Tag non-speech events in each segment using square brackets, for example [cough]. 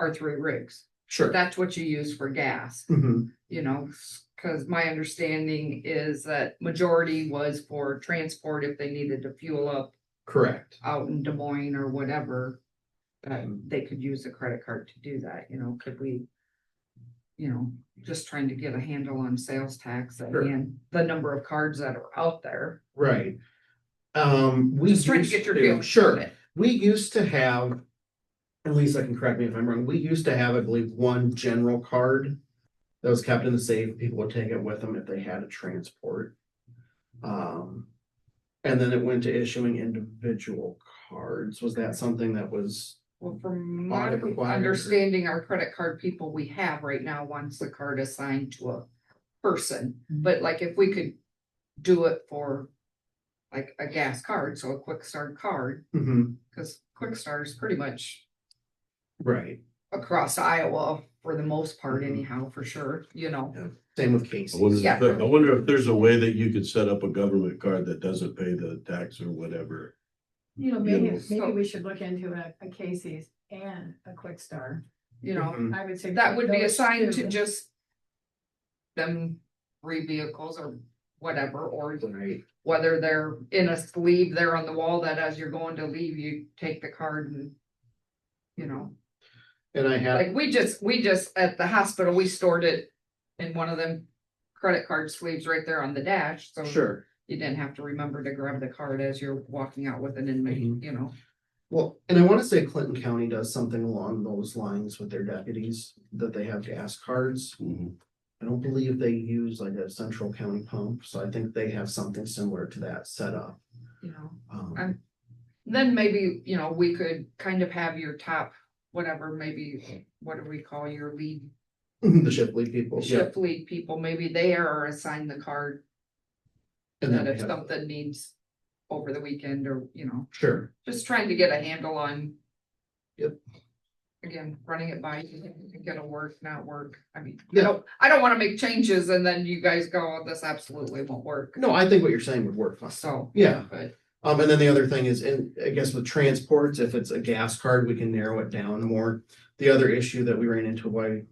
our three rigs. Sure. That's what you use for gas, Mhm. you know, cause my understanding is that majority was for transport if they needed to fuel up Correct. out in Des Moines or whatever. Um, they could use a credit card to do that, you know, could we? You know, just trying to get a handle on sales tax Sure. and the number of cards that are out there. Right. Um, we. Just trying to used get your feel. Sure. We used to have, and Lisa can correct me if I'm wrong, we used to have, I believe, one general card that was kept in the safe. People would take it with them if they had a transport. Um, and then it went to issuing individual cards. Was that something that was, Well, from my Audit required or- understanding, our credit card people we have right now wants the card assigned to a person, Mm-hmm. but like if we could do it for. Like a gas card, so a quick start card, Mhm, cause quick start is pretty much right? across Iowa for the most part anyhow, for sure, you know. Same with I Casey. wonder, Yeah. if there- I wonder if there's a way that you could set up a government card that doesn't pay the tax or whatever. You know, Yeah, maybe, well, so- maybe we should look into a, a Casey's and a Quick Star. You know, Mhm, I would say. that would be those assigned to two. just. Them three vehicles or whatever, or Right, whether they're in a sleeve there on the wall that as you're going to leave, you take the card and. You know, and I have, like we just, we just, at the hospital, we stored it in one of them. Credit card sleeves right there on the dash, so. sure. You didn't have to remember to grab the card as you're walking out with an inmate, Mhm. you know. Well, and I want to say Clinton County does something along those lines with their deputies, that they have gas cards. I don't believe they use like a central county pump, so I think they have something similar to that set up. You know. Um, I'm- Then maybe, you know, we could kind of have your top, whatever, maybe, what do we call your lead? [laughs] The Shipley people. Shift lead people, maybe they are assigned the card And that then they if have, something needs over the weekend or, you know, sure, just trying to get a handle on. Yep. Again, running it by, you think it'll work, not work. I mean, I Yeah. don't, I don't wanna make changes and then you guys go, "Oh, this absolutely won't work. no, I think what you're saying would work, fine. So, yeah. but Um, and then the other thing is, and I guess with transports, if it's a gas card, we can narrow it down more. The other issue that we ran into why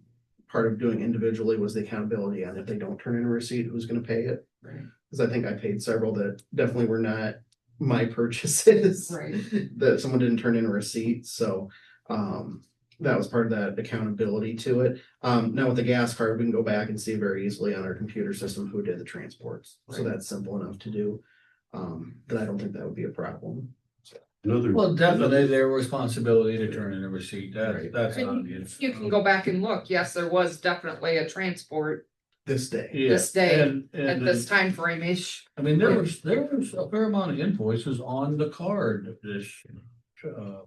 part of doing individually was the accountability, and if they don't turn in a receipt, who's gonna pay it? Right. Cause I think I paid several that definitely were not my [laughs] purchases. Right. That someone didn't turn in a receipt, so, um, that was part of that accountability to it. Um, now with the gas card, we can go back and see very easily on our computer system who did the transports, so Right. that's simple enough to do. Um, that I don't think that would be a problem. Another. Well, definitely their responsibility to turn in a receipt, that's, Right. that's. And not- you can go back and look. Yes, there was definitely a transport This day, Yeah, this day, and- at and- this time frame ish. I mean, there was, there was a fair amount of invoices on the card this, uh,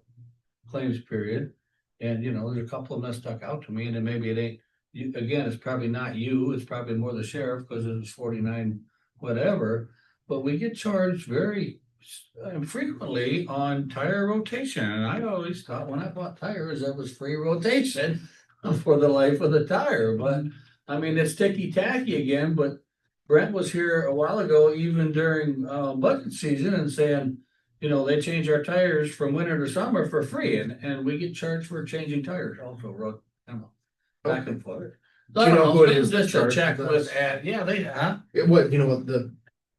claims period. And, you know, there's a couple of them that stuck out to me, and then maybe it ain't, you, again, it's probably not you, it's probably more the sheriff, because it was forty-nine, whatever. But we get charged very s- uh, frequently on tire rotation, and I always thought when I bought tires, that was free rotation [laughs] for the life of the tire, but, I mean, it's ticky tacky again, but Brent was here a while ago, even during uh budget season and saying, you know, they change our tires from winter to summer for free and and we get charged for changing tires also, road. I don't know, Back and forth. Do you know who it is that Just a charges check with, us? uh, yeah, they, huh? Yeah, what, you know what the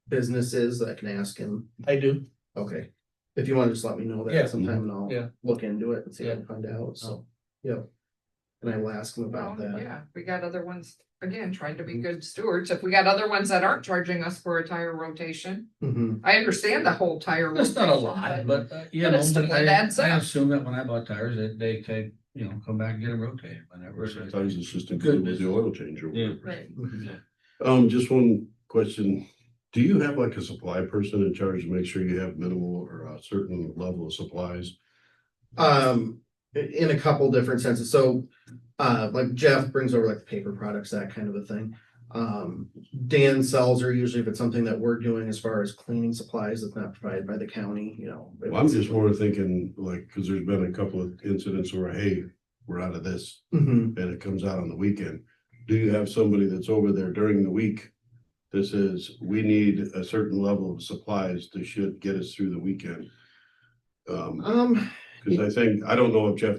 business is that I can ask him? I do. Okay. If you want to just let me know Yeah. that sometime and Yeah. Oh. I'll look into it and see if I can find out, so, yeah. And I will ask him about Well, Oh, Um, that. Mm-hmm. Yeah, we got other ones, again, trying to be good stewards. If we got other ones that aren't charging us for a tire rotation, Mhm. I understand the whole tire. It's not a rotation, lot, but uh, you but know, it's still but I an ad I sale. assume that when I bought tires, that they take, you know, come back and get them rotated whenever. Sometimes it's just included with the oil change or Yeah. whatever. Right. Mhm. Um, just one question. Do you have like a supply person in charge to make sure you have minimal or a certain level of supplies? Um, i- in a couple different senses, so, uh, like Jeff brings over like the paper products, that kind of a thing. Um, Dan sells or usually if it's something that we're doing as far as cleaning supplies that's not provided by the county, you know. if Well, I'm it's- just more thinking like, because there's been a couple of incidents where, hey, we're out of this Mhm. and it comes out on the weekend. Do you have somebody that's over there during the week? This is, we need a certain level of supplies to should get us through the weekend. Um, Um, because I think, I don't know if Jeff